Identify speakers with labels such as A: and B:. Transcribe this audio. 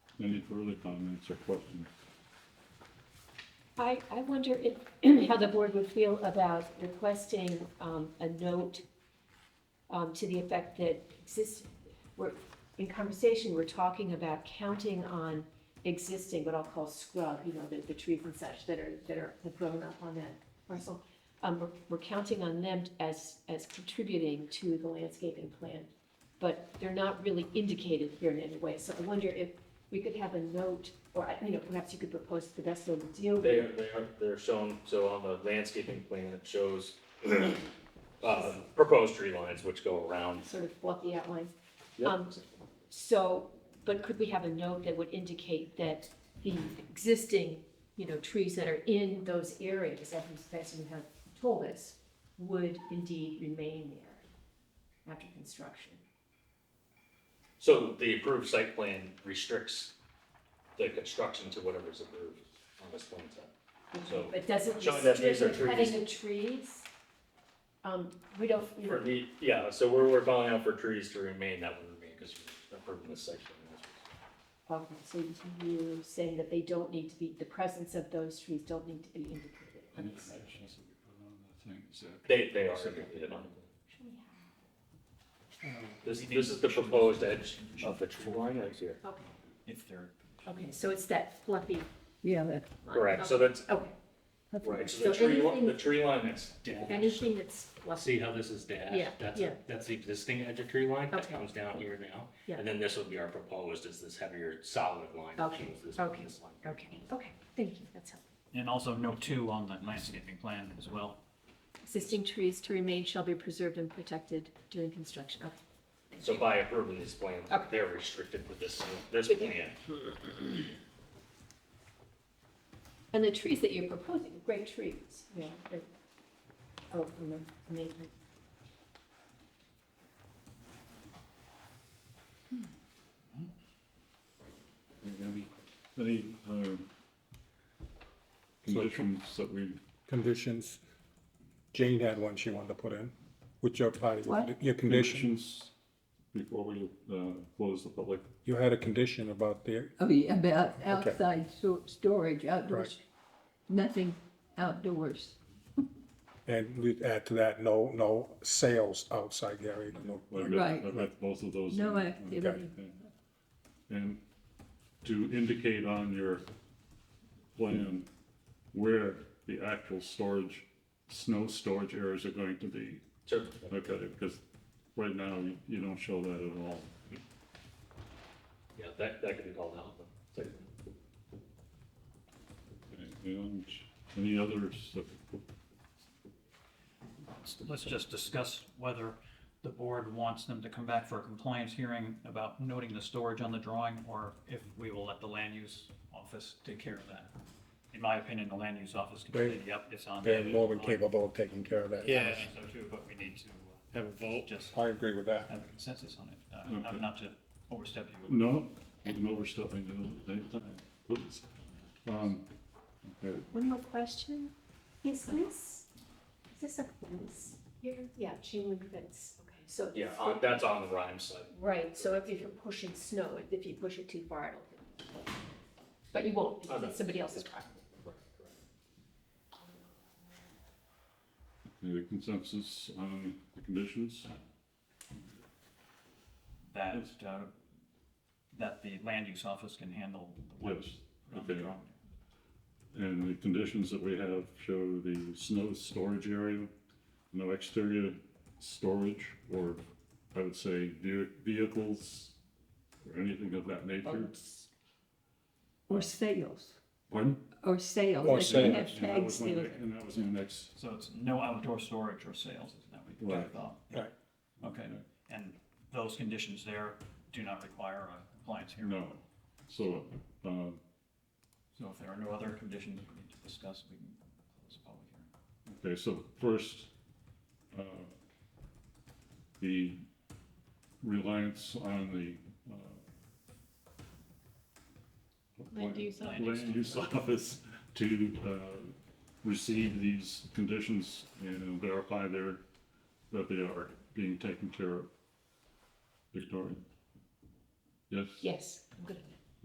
A: Any further comments or questions?
B: I, I wonder if, how the board would feel about requesting, um, a note, um, to the effect that exist, we're, in conversation, we're talking about counting on existing, what I'll call scrub, you know, the, the trees and such that are, that are grown up on that parcel. Um, we're, we're counting on them as, as contributing to the landscaping plan, but they're not really indicated here in any way. So I wonder if we could have a note, or, I- you know, perhaps you could propose the best way to deal with
C: They are, they are, they're shown, so on the landscaping plan, it shows, uh, proposed tree lines which go around.
B: sort of fluffy outline. Um, So, but could we have a note that would indicate that the existing, you know, trees that are in those areas, as Ms. Besson have told us, would indeed remain there after construction?
C: So the approved site plan restricts the construction to whatever's approved on this plan set. So,
B: But doesn't
C: showing that
B: restrict
C: these are
B: the cutting of trees? Um, we don't, you
C: for
B: know,
C: the, yeah, so we're, we're calling out for trees to remain, that would remain, because we're approving this section.
B: okay, so you're saying that they don't need to be, the presence of those trees don't need to be indicated. on the site.
C: They, they are, included on it. This, this is the proposed edge of the tree line right here.
B: Okay,
D: If they're.
B: okay, so it's that fluffy
E: Yeah, that,
B: line.
C: Correct, so that's,
B: Okay.
E: that's
C: right, so
B: So
C: the tree, li-
B: anything-
C: the tree line is
B: Anything that's fluffy,
D: See how this is
B: Yeah,
D: dashed? That's,
B: yeah.
D: that's the existing edge of tree line that
B: Okay.
D: comes down here now.
B: Yeah.
D: And then this would be our proposed, is this heavier solid line. that
B: Okay,
D: shows this-
B: okay.
D: this line.
B: okay, okay, thank you, that's helpful.
F: And also note two on the landscaping plan as well.
B: Existing trees to remain shall be preserved and protected during construction, okay.
C: So by approving this plan,
B: Okay.
C: they're restricted with this, this
B: With
C: plan.
B: And the trees that you're proposing, are great trees, yeah. they're- Oh, ama- amazing.
A: Any, um, conditions that we,
G: conditions. Jane had one she wanted to put in, which your party,
E: What?
G: your condition,
A: conditions before we, uh, close the public?
G: you had a condition about the,
E: oh, yeah, about outside so- storage, outdoors,
G: Right.
E: nothing outdoors.
G: and we'd add to that, no, no sales outside the area. no-
A: I've got-
E: Right.
A: I've got both of those.
E: No
A: in.
E: activity.
A: Okay. And to indicate on your plan where the actual storage, snow storage areas are going to be.
C: So,
A: Okay, because right now, you- you don't show that at all.
C: yeah, that, that could be called out. but-
A: And any others that
F: Let's just discuss whether the board wants them to come back for a compliance hearing about noting the storage on the drawing, or if we will let the land use office take care of that. In my opinion, the land use office can say,
G: They-
F: yep, it's on.
G: They're more than
F: there."
G: capable of taking care of that.
F: I
H: Yeah,
F: think So too, but we need to uh,
H: have a vote.
F: just
G: I agree with that.
F: have a consensus on it, uh, not to overstep you.
A: No, I'm overstepping the date time, please. Um, okay,
B: One more question, is this, is this a fence here? Yeah, chain link fence, okay, so.
C: Yeah, on- that's on the Rhyme side.
B: Right, so if you're pushing snow, if you push it too far, it'll hit. But you won't, because it's somebody else's property.
A: any consensus on the conditions?
F: That, uh, that the land use office can handle the ones
A: Yes,
F: on the
A: okay.
F: drawing.
A: And the conditions that we have show the snow storage area, no exterior storage, or I would say ve- vehicles or anything of that nature.
C: Oh.
E: Or sales,
A: Pardon?
E: or sales. like
G: Or
E: they
G: sales,
E: have
A: And that
E: tags
A: was my,
E: there.
A: and that was my next,
F: So it's no outdoor storage or sales, is that what you
A: Right.
F: thought?
G: Right.
F: Okay, and those conditions there do not require a compliance hearing?
A: no. So, um,
F: So if there are no other conditions we need to discuss, we can close the public hearing.
A: Okay, so first, uh, the reliance on the, uh.
B: Land use
A: land use office to, uh, receive these conditions and verify their, that they are being taken care of. Victoria? Yes?
B: Yes, I'm good at that.